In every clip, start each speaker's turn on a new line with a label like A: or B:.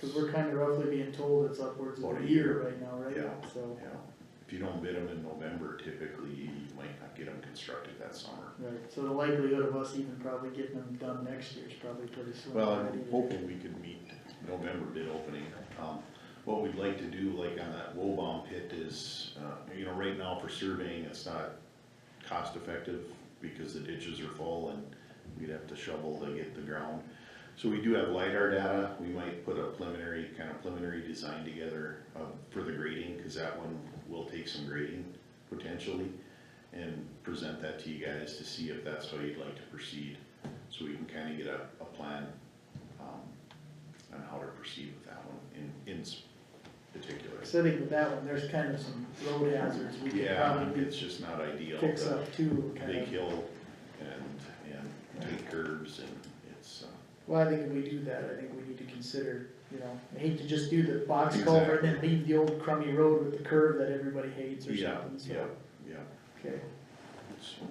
A: Cause we're kinda roughly being told it's upwards of
B: About
A: a
B: a
A: year
B: year.
A: right now, right?
B: Yeah.
A: So,
B: Yeah, if you don't bid them in November, typically you might not get them constructed that summer.
A: right, so the likelihood of us even probably getting them done next year is probably pretty slim.
B: Well, I'm
A: already.
B: hoping we could meet November bid opening. Um, what we'd like to do, like on that Wobom pit is, uh, you know, right now for surveying, it's not cost effective because the ditches are full and we'd have to shovel to get the ground. So we do have LiDAR data, we might put a preliminary, kind of preliminary design together, uh, for the grading, cause that one will take some grading potentially. And present that to you guys to see if that's how you'd like to proceed, so we can kinda get a, a plan, um, on how to proceed with that one in, in s- particular.
A: So I think with that one, there's kind of some road hazards we could
B: Yeah,
A: probably
B: it's just not ideal.
A: fix
B: to-
A: up too, kind
B: big
A: of.
B: hill and, and tight curves and it's, uh,
A: Well, I think if we do that, I think we need to consider, you know, I hate to just do the box culvert and then leave the old crummy road with the curve that everybody hates or
B: yeah,
A: something,
B: yeah,
A: so,
B: yeah.
A: okay.
B: So,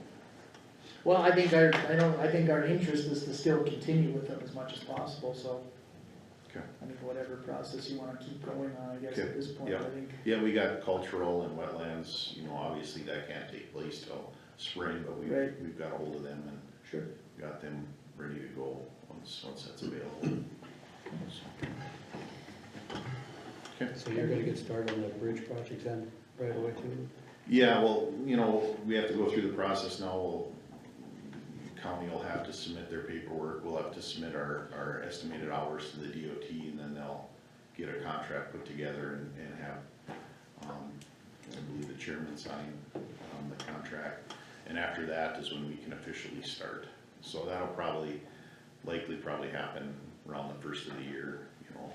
A: Well, I think our, I don't, I think our interest is to still continue with them as much as possible, so.
B: Okay.
A: I mean, whatever process you wanna keep going on, I guess
B: Okay,
A: at this point, I
B: yeah.
A: think,
B: Yeah, we got cultural and wetlands, you know, obviously that can't take place till spring, but we,
A: Right.
B: we've got hold of them and
A: sure.
B: got them ready to go once, once that's available. So,
C: So you're gonna get started on the bridge project then, right away too?
B: Yeah, well, you know, we have to go through the process now, we'll, county will have to submit their paperwork, we'll have to submit our, our estimated hours to the DOT, and then they'll get a contract put together and, and have, um, I believe the chairman sign, um, the contract, and after that is when we can officially start. So that'll probably, likely probably happen around the first of the year, you know,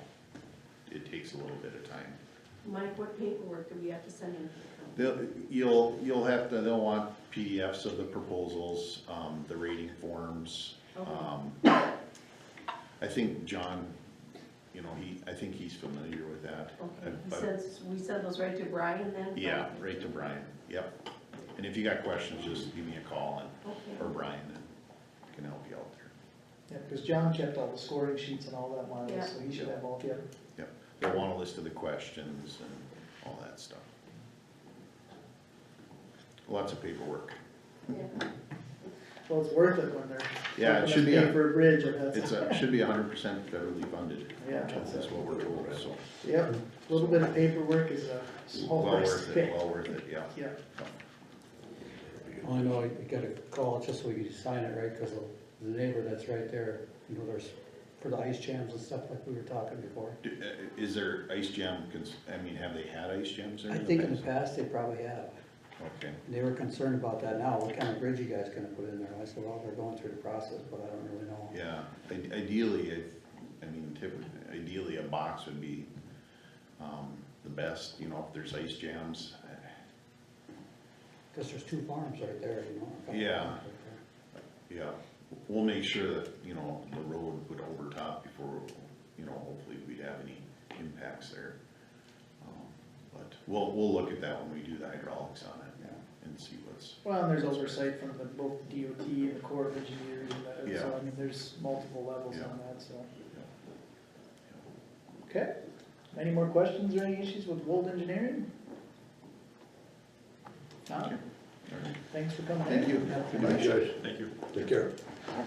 B: it takes a little bit of time.
D: Mike, what paperwork do we have to send in? to the
B: They'll, you'll, you'll have to, they'll want PDFs of the proposals, um, the rating forms,
D: company? Okay.
B: um, I think John, you know, he, I think he's familiar with that.
D: Okay, he
B: But-
D: says, we send those right to Brian then?
B: Yeah, right to Brian, yep. And if you got questions, just give me a call and, or
D: Okay,
B: Brian, and can help you out there.
A: Yeah, cause John kept all the scoring sheets and all that
D: Yeah.
A: while, so he should have all, yeah.
B: They'll want a list of the questions and all that stuff. Lots of paperwork.
D: yeah,
A: Well, it's worth it when they're.
B: Yeah, it
A: helping
B: should
A: us
B: be
A: pay
B: a-
A: For a bridge and that's.
B: It's, a- should be hundred percent federally funded.
A: Yeah, that's
B: That's what we're told, so.
A: Yep, a little bit of paperwork is a small
B: Well
A: price
B: worth
A: to
B: it,
A: pay.
B: well worth it, yeah.
A: Yeah,
C: Well, I know, Oh, I got a call just so we could sign it, right, cause the neighbor that's right there, you know, there's, for the ice jams and stuff like we were talking before.
B: Do- uh, Is there ice jam, cons- I mean, have they had ice jams there
C: I
B: in the
C: think in the
B: past?
C: past they probably have,
B: Okay,
C: they were concerned about that now, what kind of bridge you guys gonna put in there? I said, well, they're going through the process, but I don't really know.
B: yeah, I- ideally, if- I mean, typically, ideally, a box would be, um, the best, you know, if there's ice jams.
C: Cause there's two farms right there, you know. a couple
B: Yeah.
C: farms right there.
B: Yeah, we'll make sure that, you know, the road would overtop before, you know, hopefully we'd have any impacts there. Um, But we'll, we'll look at that when we do the hydraulics on it
C: Yeah.
B: and see what's,
A: well, and there's oversight from the, both the DOT and the Corps of Engineers and that, so
B: Yeah.
A: I mean, there's multiple levels
B: Yeah.
A: on that, so.
B: you know,
A: Okay, any more questions or any issues with Wold Engineering? Tom, thanks for coming in.
B: Thank you.
E: Thanks, guys.
B: Thank you.
E: Take care.
A: Well,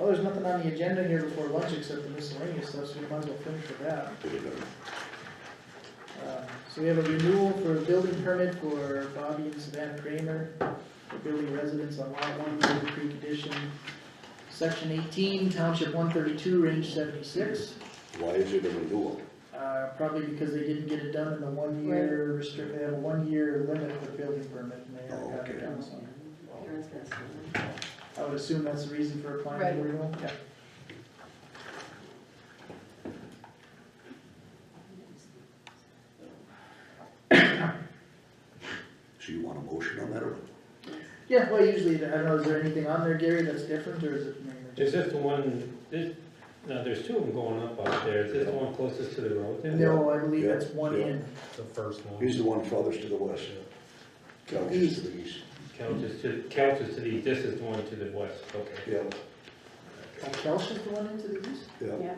A: Oh, there's nothing on the agenda here before lunch except the miscellaneous stuff, so we might as well finish with that. Uh, So we have a renewal for a building permit for Bobby and Savannah Kramer for building residence on lot one, River Creek Edition, section eighteen, township one thirty-two, range seventy-six.
E: Why is it a renewal?
A: Uh, probably because they didn't get it done in the one-year restrict, they have a one-year limit for building permit and they haven't got it
E: Okay.
A: done, so.
D: Karen's gonna send them.
A: I would assume that's the reason for applying for
D: Right.
A: renewal, yeah.
E: So you want a motion on that or?
A: Yeah, well, usually, I don't know, is there anything on there, Gary, that's different, or is it mainly just?
F: Is this the one, this, no, there's two of them going up out there, is this the one closest to the road then?
A: No, I believe that's one in,
F: The first
E: He's the one farthest to the west. Couch is
A: uh,
E: to the east.
F: Couch is to, couch is to the, this is the one to the west, okay.
E: Yeah,
A: uh, Kelch is the one into the east?
E: yeah.
D: Yeah,